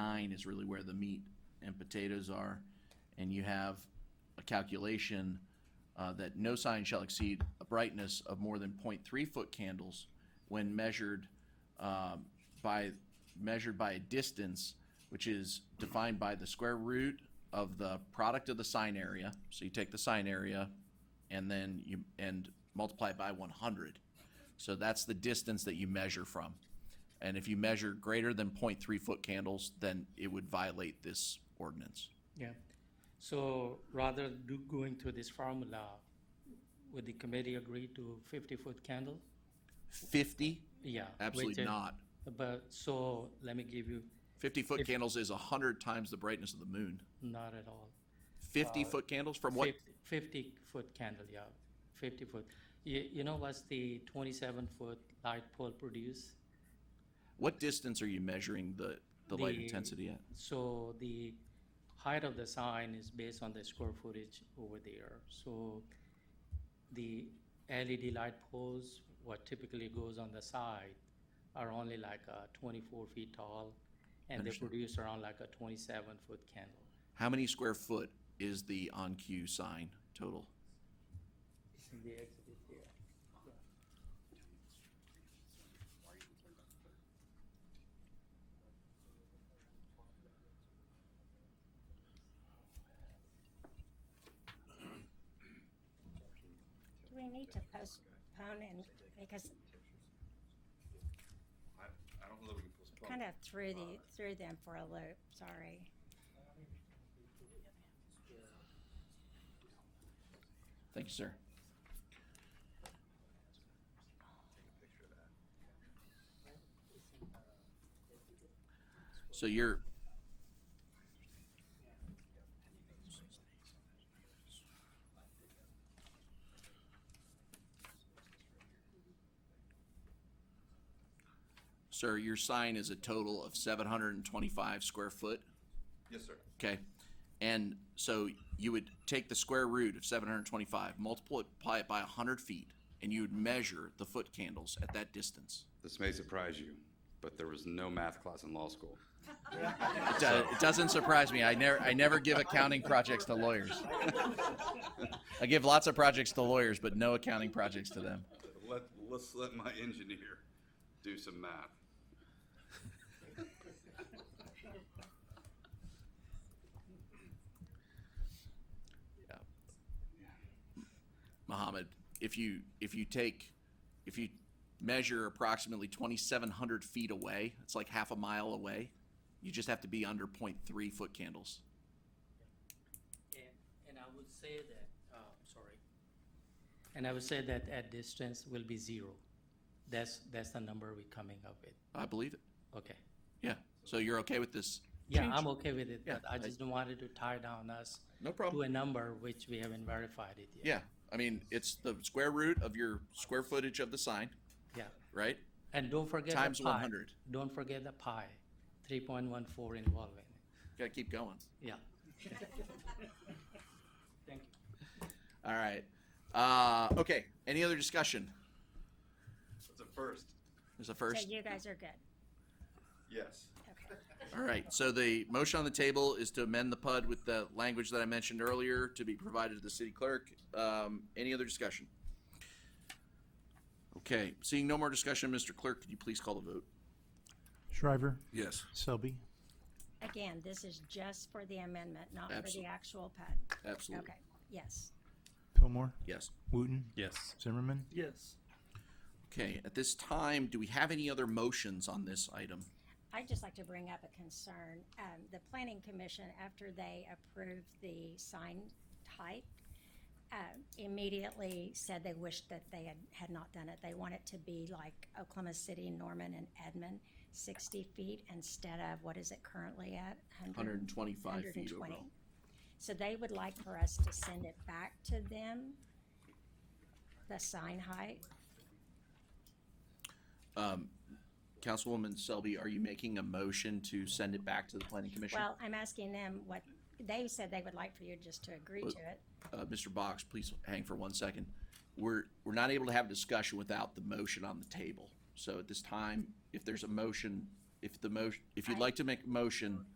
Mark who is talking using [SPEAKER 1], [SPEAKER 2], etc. [SPEAKER 1] line is really where the meat and potatoes are. And you have a calculation uh, that no sign shall exceed a brightness of more than 0.3 foot candles when measured um, by, measured by a distance, which is defined by the square root of the product of the sign area. So you take the sign area and then you, and multiply it by one hundred. So that's the distance that you measure from. And if you measure greater than 0.3 foot candles, then it would violate this ordinance.
[SPEAKER 2] Yeah, so rather do going through this formula, would the committee agree to fifty-foot candle?
[SPEAKER 1] Fifty?
[SPEAKER 2] Yeah.
[SPEAKER 1] Absolutely
[SPEAKER 2] which, uh,
[SPEAKER 1] not.
[SPEAKER 2] But, so, let me give you,
[SPEAKER 1] Fifty foot candles is a hundred times the brightness of the moon.
[SPEAKER 2] not at all.
[SPEAKER 1] Fifty foot candles from what?
[SPEAKER 2] Fifty-foot candle, yeah, fifty-foot. You, you know what's the twenty-seven-foot light pole produce?
[SPEAKER 1] What distance are you measuring the, the light
[SPEAKER 2] The-
[SPEAKER 1] intensity at?
[SPEAKER 2] So the height of the sign is based on the square footage over there. So the LED light poles, what typically goes on the side, are only like uh, 24 feet tall, and they
[SPEAKER 1] Understand.
[SPEAKER 2] produce around like a 27-foot candle.
[SPEAKER 1] How many square foot is the on cue sign total?
[SPEAKER 2] The exhibit here.
[SPEAKER 3] Do we need to postpone and, because
[SPEAKER 4] I, I don't know that we can postpone. Uh,
[SPEAKER 3] kind of threw the, threw them for a loop, sorry.
[SPEAKER 1] Thank you, sir. So you're. Sir, your sign is a total of seven hundred and twenty-five square foot?
[SPEAKER 4] Yes, sir.
[SPEAKER 1] Okay. And so you would take the square root of 725, multiply it by 100 feet, and you would measure the foot candles at that distance.
[SPEAKER 4] This may surprise you, but there was no math class in law school.
[SPEAKER 1] It, do- it doesn't surprise me. I never, I never give accounting projects to lawyers. I give lots of projects to lawyers, but no accounting projects to them.
[SPEAKER 4] Let, let's let my engineer do some math.
[SPEAKER 1] Mohammed, if you if you take if you measure approximately 2,700 feet away, it's like half a mile away. You just have to be under 0.3 foot candles.
[SPEAKER 2] And, and I would say that, uh, sorry. And I would say that at distance will be zero. That's, that's the number we're coming up with.
[SPEAKER 1] I believe it.
[SPEAKER 2] Okay.
[SPEAKER 1] Yeah, so you're okay with this?
[SPEAKER 2] Yeah,
[SPEAKER 1] change?
[SPEAKER 2] I'm okay with it,
[SPEAKER 1] Yeah,
[SPEAKER 2] but I
[SPEAKER 1] I-
[SPEAKER 2] just wanted to tie down us
[SPEAKER 1] No
[SPEAKER 2] to
[SPEAKER 1] problem.
[SPEAKER 2] a number which we haven't verified it yet.
[SPEAKER 1] Yeah, I mean, it's the square root of your square footage of the sign,
[SPEAKER 2] Yeah,
[SPEAKER 1] right?
[SPEAKER 2] and don't forget
[SPEAKER 1] Times
[SPEAKER 2] the
[SPEAKER 1] one
[SPEAKER 2] pi.
[SPEAKER 1] hundred.
[SPEAKER 2] Don't forget the pi, three point one four involving,
[SPEAKER 1] Gotta keep going.
[SPEAKER 2] yeah. Thank you.
[SPEAKER 1] All right. Uh, okay, any other discussion?
[SPEAKER 4] That's a first.
[SPEAKER 1] There's a
[SPEAKER 3] So
[SPEAKER 1] first.
[SPEAKER 3] you guys are good,
[SPEAKER 4] Yes.
[SPEAKER 3] okay.
[SPEAKER 1] All right, so the motion on the table is to amend the PUD with the language that I mentioned earlier to be provided to the city clerk. Um, any other discussion? Okay, seeing no more discussion, Mr. Clerk, could you please call the vote?
[SPEAKER 5] Shriver,
[SPEAKER 4] Yes.
[SPEAKER 5] Selby,
[SPEAKER 3] Again, this is just for the amendment, not for the
[SPEAKER 1] Absolutely.
[SPEAKER 3] actual PUD.
[SPEAKER 1] Absolutely.
[SPEAKER 3] Okay, yes.
[SPEAKER 5] Pillmore,
[SPEAKER 1] Yes.
[SPEAKER 5] Wooten,
[SPEAKER 6] Yes.
[SPEAKER 5] Zimmerman,
[SPEAKER 6] Yes.
[SPEAKER 1] Okay, at this time, do we have any other motions on this item?
[SPEAKER 3] I'd just like to bring up a concern. Um, the planning commission, after they approved the sign type, uh, immediately said they wished that they had, had not done it. They want it to be like Oklahoma City, Norman and Edmond, sixty feet instead of, what is it currently at?
[SPEAKER 1] 125 feet
[SPEAKER 3] 120.
[SPEAKER 1] overall.
[SPEAKER 3] So they would like for us to send it back to them, the sign height.
[SPEAKER 1] Councilwoman Selby, are you making a motion to send it back to the planning commission?
[SPEAKER 3] Well, I'm asking them what, they said they would like for you just to agree
[SPEAKER 1] Well-
[SPEAKER 3] to it.
[SPEAKER 1] Uh, Mr. Box, please hang for one second. We're, we're not able to have discussion without the motion on the table. So at this time, if there's a motion, if the motion, if you'd
[SPEAKER 3] I-
[SPEAKER 1] like to make a motion,